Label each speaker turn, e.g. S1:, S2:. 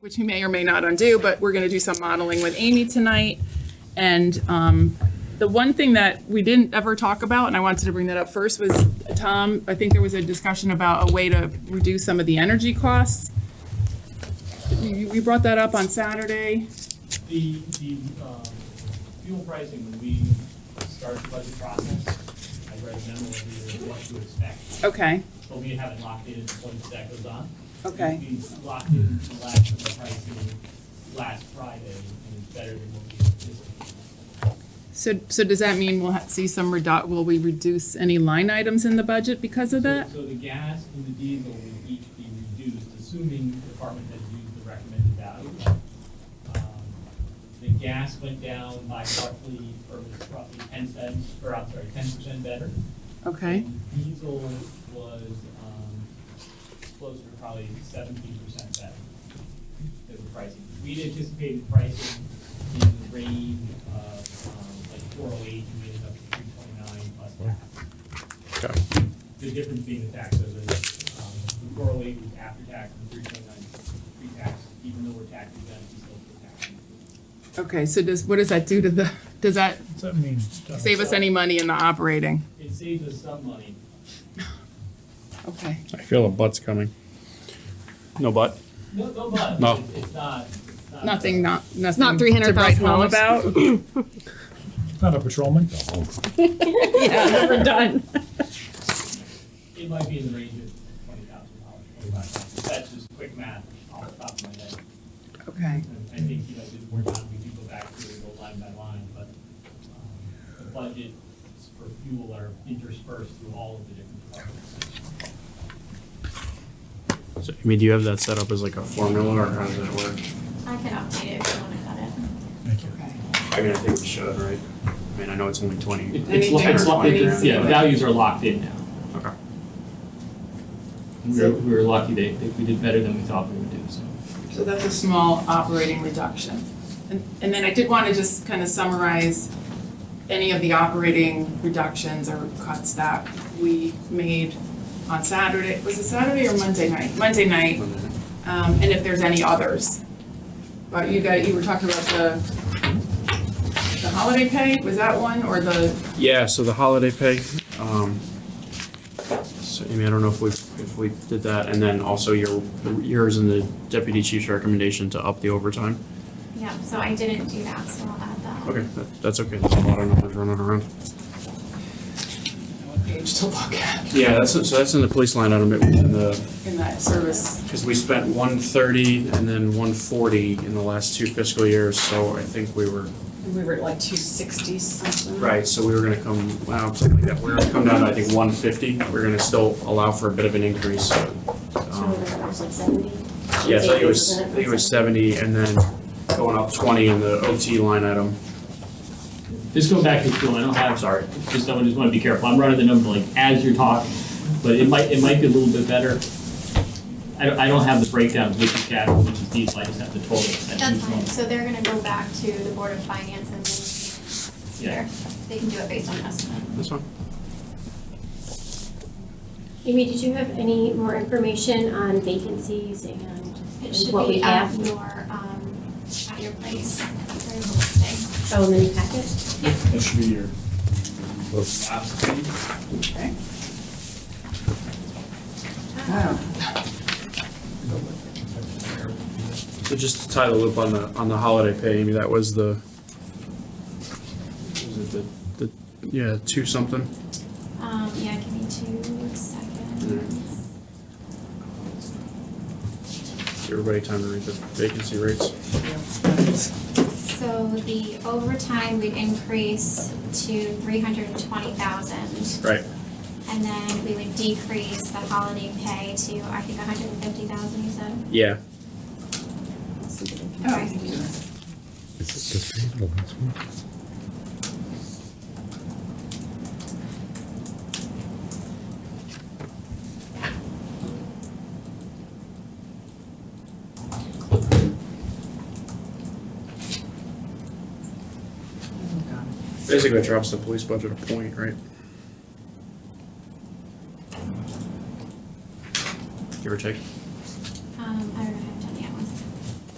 S1: which you may or may not undo, but we're going to do some modeling with Amy tonight. And um, the one thing that we didn't ever talk about, and I wanted to bring that up first, was, Tom, I think there was a discussion about a way to reduce some of the energy costs. We we brought that up on Saturday.
S2: The, the, um, fuel pricing, when we start the budget process, I write a memo every year, what to expect,
S1: Okay,
S2: but we haven't locked in what that goes on.
S1: Okay.
S2: We locked in the last of the pricing last Friday, and it's better than what we anticipated.
S1: so, so does that mean we'll ha- see some redu, will we reduce any line items in the budget because of that?
S2: So so the gas and the diesel will each be reduced, assuming the department has used the recommended value. Um, The gas went down by roughly, or was roughly ten cents, or I'm sorry, ten percent better.
S1: Okay,
S2: And Diesel was, um, closer to probably seventeen percent better than the pricing. We'd anticipated pricing in the range of, um, like four oh eight, we ended up at three twenty-nine plus tax.
S3: Okay.
S2: The difference being the tax, so the, um, the four oh eight was after tax, and three twenty-nine pre-tax, even though we're tax exempt, we still pay tax.
S1: okay, so does, what does that do to the, does that
S4: Does that mean?
S1: save us any money in the operating?
S2: It saves us some money,
S1: Okay.
S3: I feel a butt's coming. No butt?
S2: no, no, but
S3: No.
S2: it's- it's not, it's not.
S1: Nothing, not, nothing.
S5: Not
S1: to write home
S5: $300,000.
S1: About.
S4: Not a patrolman?
S5: Yeah, we're done.
S2: It might be in the range of twenty thousand dollars, twenty-five thousand. That's just quick math off the top of my head.
S1: Okay,
S2: And I think, you know, did more time, we do go back to it, go line by line, but um, the budgets for fuel are interspersed through all of the different departments.
S3: So, I mean, do you have that set up as like a formula or how does that work?
S6: I can update it if you want to cut it.
S4: Thank you.
S1: okay.
S3: I mean, I think we should, right? I mean, I know it's only twenty.
S2: It's, lo- it's, lo- it's, yeah, values are locked in now.
S3: Okay.
S2: We were, we were lucky they, they- we did better than we thought we would do, so.
S1: So that's a small operating reduction. And, and then I did want to just kind of summarize any of the operating reductions or cuts that we made on Saturday. Was it Saturday or Monday night? Monday night, um, and if there's any others. But you guys, you were talking about the, the holiday pay, was that one, or the,
S3: Yeah, so the holiday pay, um, so Amy, I don't know if we, if we did that, and then also your, yours and the deputy chief's recommendation to up the overtime.
S6: Yeah, so I didn't do that, so I'll add that.
S3: Okay, that, that's okay, there's a lot of numbers running around.
S1: what page to look at
S3: Yeah, that's, so that's in the police line item, it was in the
S1: in that service?
S3: Because we spent one thirty and then one forty in the last two fiscal years, so I think we were.
S5: We were at like two sixty something.
S3: Right. So we were gonna come, wow, something like that, we we're gonna come down to, I think, one fifty, we're gonna still allow for a bit of an increase.
S7: So
S3: Um,
S7: it was like seventy?
S3: Yeah, so I think it was, I think it was seventy and then going up twenty in the OT line item.
S2: Just go back to fuel, I don't have, sorry, just, I just want to be careful, I'm running the number like as you're talking, but it might, it might be a little bit better. I don't, I don't have the breakdown, of which is capital, which is diesel, I just have the total.
S6: That's fine, so they're gonna go back to the Board of Finance and then
S2: Yeah.
S6: there, they can do it based on estimate.
S3: That's fine.
S7: Amy, did you have any more information on vacancies and
S6: It should
S7: what we
S6: be at
S7: have?
S6: your, um, at your place, very listing.
S7: Oh, in the new packet?
S2: That should be your. Absolutely.
S3: So just to tie the loop on the, on the holiday pay, Amy, that was the, was it the, the, yeah, two something?
S6: Um, yeah, give me two seconds.
S3: Give Everybody time to read the vacancy rates.
S6: So the overtime would increase to three hundred and twenty thousand.
S3: Right.
S6: And then we would decrease the holiday pay to, I think, hundred and fifty thousand, you said?
S3: Yeah,
S6: Okay.
S3: basically it drops the police budget a point, right? Give or take.
S6: Um,